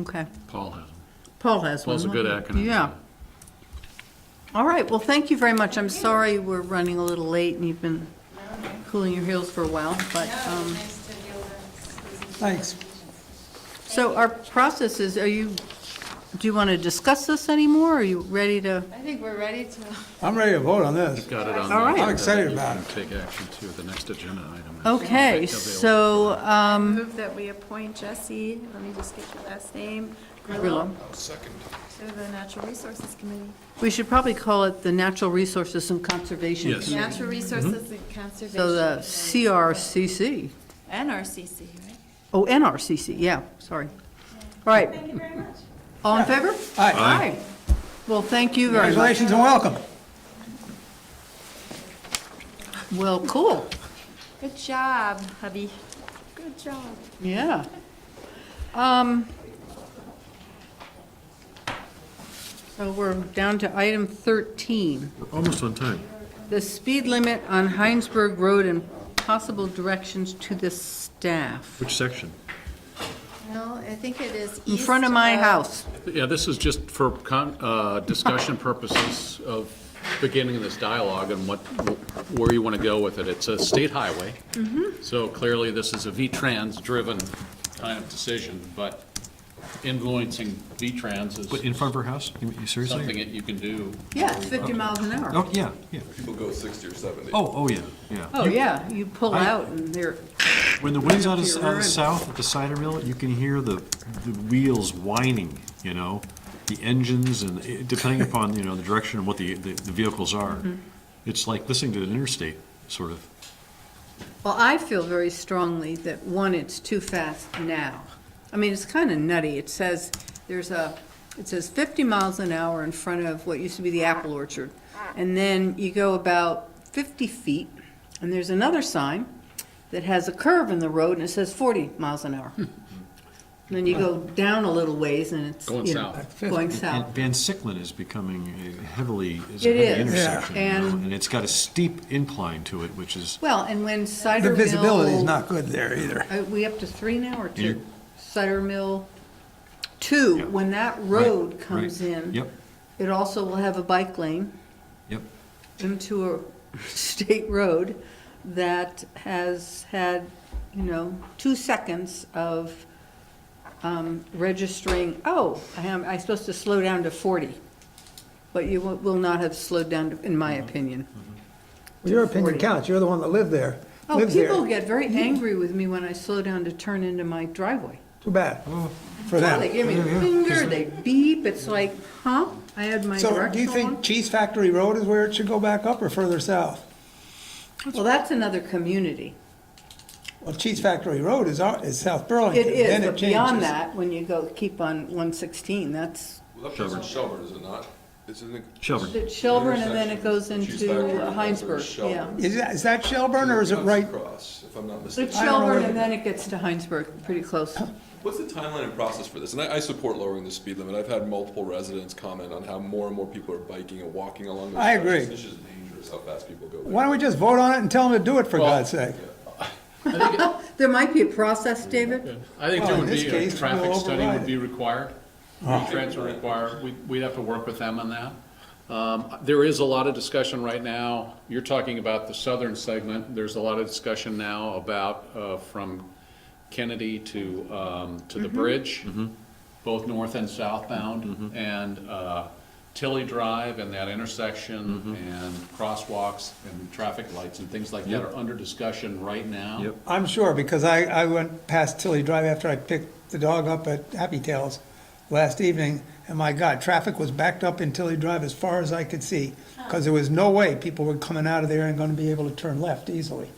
Okay. Paul has them. Paul has one. Paul's a good acronym. Yeah. All right, well, thank you very much. I'm sorry we're running a little late and you've been cooling your heels for a while, but, um, Nice to be able to- Thanks. so our process is, are you, do you want to discuss this anymore? Are you ready to? I think we're ready to, I'm ready to vote on this. Got it on. All right. the- I'm excited about it. Take action to the next agenda item. Okay, Available. so, um, move that we appoint Jesse, let me just get your last name, Grillo. Grillo, to the Natural Resources Committee. um, we should probably call it the Natural Resources and Conservation. Yes. Committee. Natural Resources and Conservation. Mm-hmm. So the Committee. CRCC, NRCC, right? oh, NRCC, yeah, sorry. All right. Thank you very much. All in favor? Aye. Aye. Well, thank you very much. Congratulations and welcome. Well, cool, Good job, hubby. Good job. yeah. Um, So we're down to item 13, Almost on time. the speed limit on Heinsberg Road and possible directions to the staff. Which section? No, I think it is In front of my house. Yeah, this is just for con- uh, discussion purposes of beginning this dialogue and what, where you want to go with it. It's a state highway. Mm-hmm. So clearly, this is a V-Trans-driven kind of decision, but influencing V-Trans But in is front of her house? You- something you Seriously? that you can do. Yeah, it's 50 miles an hour. Oh, yeah, yeah. People go 60 or 70. Oh, oh, yeah, yeah. Oh, You- yeah, you pull I- out and they're, When the wind's Right out up of, to your out of rear end. south at the cider mill, you can hear the, the wheels whining, you know? The engines and it- depending upon, you know, the direction and what the, the the vehicles are. Mm-hmm. It's like listening to an interstate, sort of. well, I feel very strongly that, one, it's too fast now. I mean, it's kind of nutty. It says, there's a, it says 50 miles an hour in front of what used to be the apple orchard. And then you go about 50 feet, and there's another sign that has a curve in the road, and it says 40 miles an Hmm. hour. And Then you go down a little ways, and it's, Going you know, south. going And south. Van Siclin is becoming a heavily, is a It heavy is, yeah. intersection, you know? And- And it's got a steep incline to it, which is, Well, and when Cider The Mill. visibility is not good there either. Are Uh, we up to three now or two? You- Cider Mill, two, Yeah. when that road Right, comes right. in. Yep. It also will have a bike lane yep, into a state road that has had, you know, two seconds of um, registering, oh, I am, I'm supposed to slow down to forty. But you will- will not have slowed down, to- in my Mm-hmm. opinion. Your opinion counts. You're the one that lived there, Oh, lives there. Mm-hmm. people get very angry with me when I slow down to turn into my driveway. Too bad for Oh, They them. Mm-hmm. give me the Yeah, yeah. finger, they beep, it's like, huh? I had my So do you directional think on. Cheese Factory Road is where it should go back up or further south? Well, that's another community. Well, Cheese Factory Road is, our- is South Burlington. It is, Then but changes. beyond that, when you go, keep on one sixteen, that's Well, that's in Shelburne, is it not? It's in the. Shelburne. the Shelburne and then it goes Intersection. Cheese into Factory, uh, that's Heinsberg, where yeah. Shelburne. Is that, is that Shelburne or is it Comes right? Across, if I'm not It's mistaken. I don't know Shelburne where- and then it gets to Heinsberg, pretty close. What's the timeline and process for this? And I, I support lowering the speed limit. I've had multiple residents comment on how more and more people are biking and walking along those. I sections. agree. It's just dangerous how fast people go. Why don't we just vote on it and tell them to do it for Well- God's sake? There might be a process, David? I think Well, there in would this be, a case, traffic we'll study override would it. be required. V-Trans would require, we- we'd have to work with them on that. Um, There is a lot of discussion right now, you're talking about the southern segment, there's a lot of discussion now about uh, from Kennedy to, um, to Mm-hmm. the bridge, both north and southbound, and uh, Tilly Drive and that intersection, and crosswalks and traffic lights and things like that are under discussion right now. Yep. I'm sure, because I, I went past Tilly Drive after I picked the dog up at Happy Tails last evening, and my God, traffic was backed up in Tilly Drive as far as I could see, because there was no way people were coming out of there and gonna be able to turn left easily.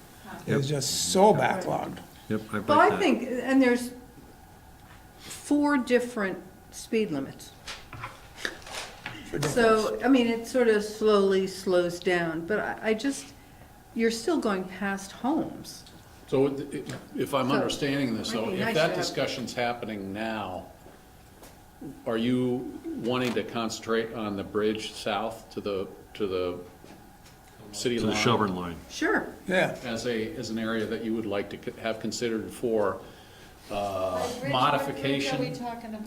It was just so backlogged. yep, I Well, like I that. think, and there's four different speed limits. So, I mean, it sort of slowly slows down, but I, I just, you're still going past homes. So it- if I'm So, understanding this, might though, be if nice to that have- discussion's happening now, are you wanting to concentrate on the bridge south to the, to the city To line? the Shelburne line. Sure. Yeah, As a, as an area that you would like to c- have considered for uh, Rich, what bridge modification? are we talking about?